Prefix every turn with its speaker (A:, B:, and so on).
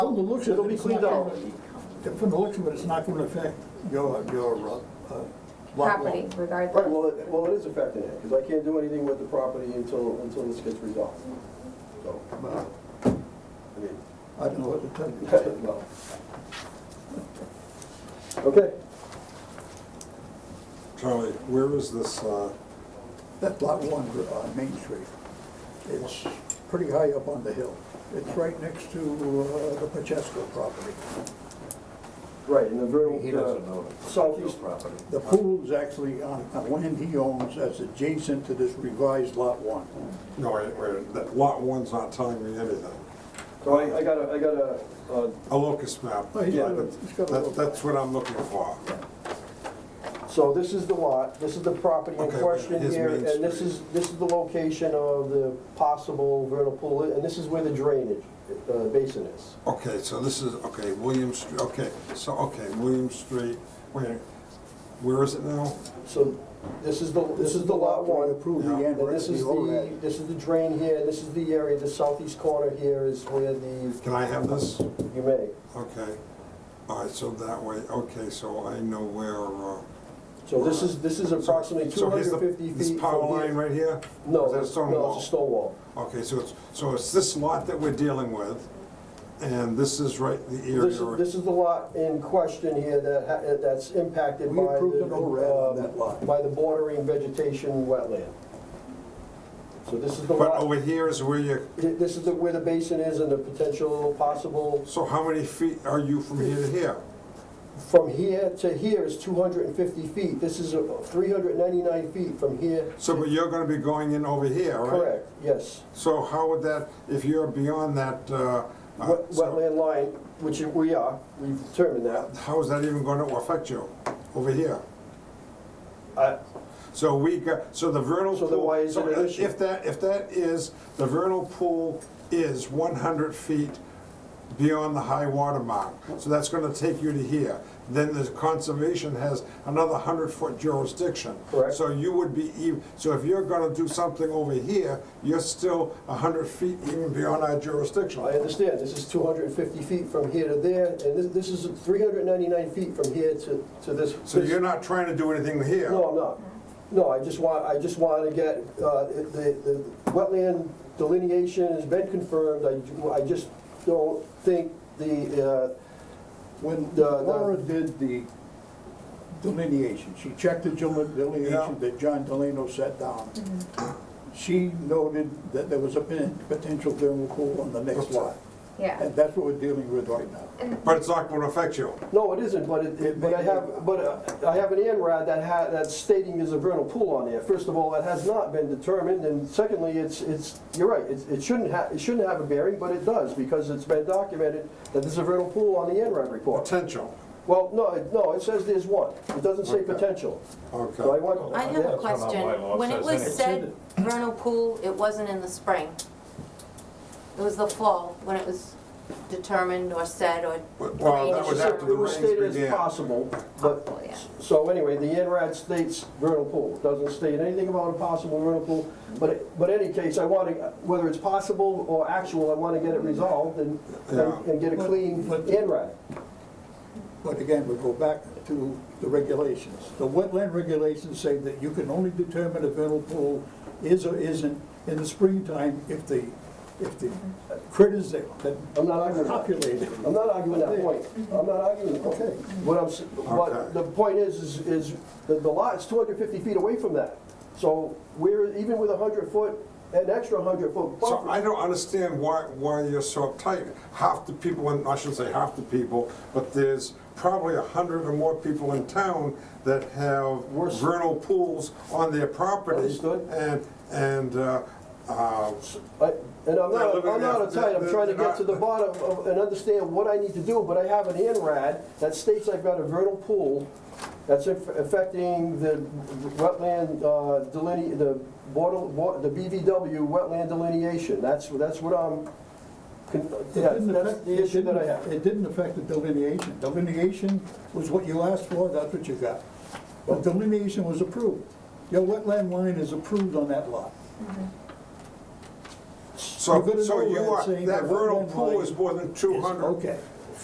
A: Well, the looks of
B: It'll
A: it,
B: be
A: it's not
B: cleaned out.
A: gonna- from the looks of it, it's not gonna affect your, your uh, uh, lot
C: property
A: line.
B: Right,
C: regardless.
B: well, it, well, it is affecting it, because I can't do anything with the property until, until this gets resolved. So,
A: Well,
B: I mean,
A: Uh, I don't know what to tell you.
B: well. Okay,
D: Charlie, where is this, uh,
A: That's lot one, uh, Main Street. It's pretty high up on the hill. It's right next to, uh, the Pacheco property.
B: right, and the
E: He
B: very,
E: doesn't
B: uh,
E: know the
B: southeast,
E: property.
A: The pool is actually on, on land he owns that's adjacent to this revised lot one.
D: no, wait, wait, that lot one's not telling me anything.
B: so I, I got a, I got a, uh,
D: A locus map,
A: Oh, he's
B: Yeah,
A: got a-
D: that's,
A: he's got a
D: that-
A: little-
D: that's what I'm looking for.
B: So this is the lot, this is the property in
D: Okay,
B: question
D: his
B: here,
D: main
B: and this
D: street.
B: is, this is the location of the possible vernal pool, and this is where the drainage uh, basin is.
D: Okay, so this is, okay, William Street, okay, so, okay, William Street, wait, where is it now?
B: So this is the, this is the lot one,
A: Approved the
D: Yeah.
A: end,
B: and this is the, this is the drain here, and this is the area, the southeast corner here is where the,
D: Can I have this?
B: you may.
D: Okay, all right, so that way, okay, so I know where, uh.
B: So this is, this is approximately two
D: so here's
B: hundred
D: the-
B: fifty feet.
D: This power
B: from here.
D: line right here?
B: No,
D: Is that a stone
B: no, it's a
D: wall?
B: stone wall.
D: Okay, so it's, so it's this lot that we're dealing with, and this is right, the
B: This
D: area.
B: is, this is the lot in question here that, ha- eh, that's impacted by
A: We
B: the.
A: approved an ORAD on
B: um,
A: that lot.
B: By the bordering vegetation wetland. So this is the
D: But
B: lot,
D: over here is where you,
B: this is the, where the basin is and the potential possible,
D: so how many feet are you from here to here?
B: from here to here is two hundred and fifty feet. This is uh, three hundred ninety-nine feet from here.
D: So, but you're gonna be going in over here, right?
B: Correct, yes.
D: So how would that, if you're beyond that, uh, uh,
B: Wet-
D: so
B: Wetland line, which we are, we've determined that.
D: how is that even gonna affect you over here?
B: I-
D: So we got, so the vernal
B: So
D: pool.
B: then why is
D: so
B: it an issue?
D: If that, if that is, the vernal pool is one hundred feet beyond the high water mark, so that's gonna take you to here. Then the conservation has another hundred foot jurisdiction.
B: Correct.
D: So you would be, ev- so if you're gonna do something over here, you're still hundred feet even beyond our jurisdiction.
B: I understand, this is 250 feet from here to there, and this- this is 399 feet from here to to this.
D: So
B: this-
D: you're not trying to do anything here?
B: No, I'm not. No, I just want, I just wanted to get, uh, the the wetland delineation has been confirmed. I ju- I just don't think the, uh,
A: When
B: The- the-
A: Laura did the delineation, she checked the del-
D: Yeah.
A: delineation that John Delano set down. She noted that there was a pen- potential thermal pool on the next lot.
C: Yeah.
A: And that's what we're dealing with right now.
D: But it's not gonna affect you?
B: no, it isn't, but it- it,
A: It
B: but I
A: may-
B: have, but uh, I have an ANRAD that ha that's stating there's a vernal pool on there. First of all, that has not been determined, and secondly, it's, it's, you're right, it's- it shouldn't have, it shouldn't have a bearing, but it does, because it's been documented that there's a vernal pool on the ANRAD report.
D: Potential,
B: Well, no, it- no, it says there's one. It doesn't say
D: Okay.
B: potential. So I
D: okay.
B: want.
F: I have
B: yeah.
F: a
E: That's not
F: question.
E: my law, it
F: When it
E: says
F: was
E: anything.
F: said vernal pool, it wasn't in the spring. It was the fall when it was determined or said or
D: Well, that was
F: Drainage.
D: after the
B: It was
D: rains
B: stated as
D: began.
B: possible,
F: Possible,
B: but,
F: yeah.
B: so anyway, the NRAD states vernal pool, doesn't state anything about a possible vernal pool, but, it- but any case, I want to, whether it's possible or actual, I want to get it resolved and, and and get a clean
A: But- but-
B: NRAD.
A: But again, we go back to the regulations. The wetland regulations say that you can only determine if vernal pool is or isn't in the springtime if the, if the critters that
B: I'm not arguing that.
A: populate it.
B: I'm not arguing that point. I'm not arguing, okay. What I'm, s-
D: Okay.
B: what, the point is, is, is the the lot's 250 feet away from that. So we're, even with a 100-foot, an extra 100-foot
D: So I
B: buffer,
D: don't understand why, why you're so uptight. Half the people, in- I shouldn't say half the people, but there's probably a hundred or more people in town that have
B: Worse.
D: vernal pools on their property.
B: Understood.
D: And, and, uh, uh,
B: I- and I'm
D: They're
B: not,
D: living
B: I'm
D: there.
B: not uptight, I'm trying to
D: They're
B: get to the
D: not-
B: bottom of, and understand what I need to do, but I have an INRAD that states I've got a vernal pool that's aff- affecting the wetland uh, deline, the border, wa- the BVW wetland delineation. That's, that's what I'm, con-
A: It
B: yeah,
A: didn't
B: that's
A: affect-
B: the
A: it
B: issue that I
A: didn't-
B: have.
A: It didn't affect the delineation. Delineation was what you asked for, that's what you got. The delineation was approved. Your wetland line is approved on that lot.
D: So,
A: You've got an
D: so you
A: override
D: are,
A: saying
D: that
A: the
D: vernal
A: wetland
D: pool
A: line
D: is more than two hundred
A: okay.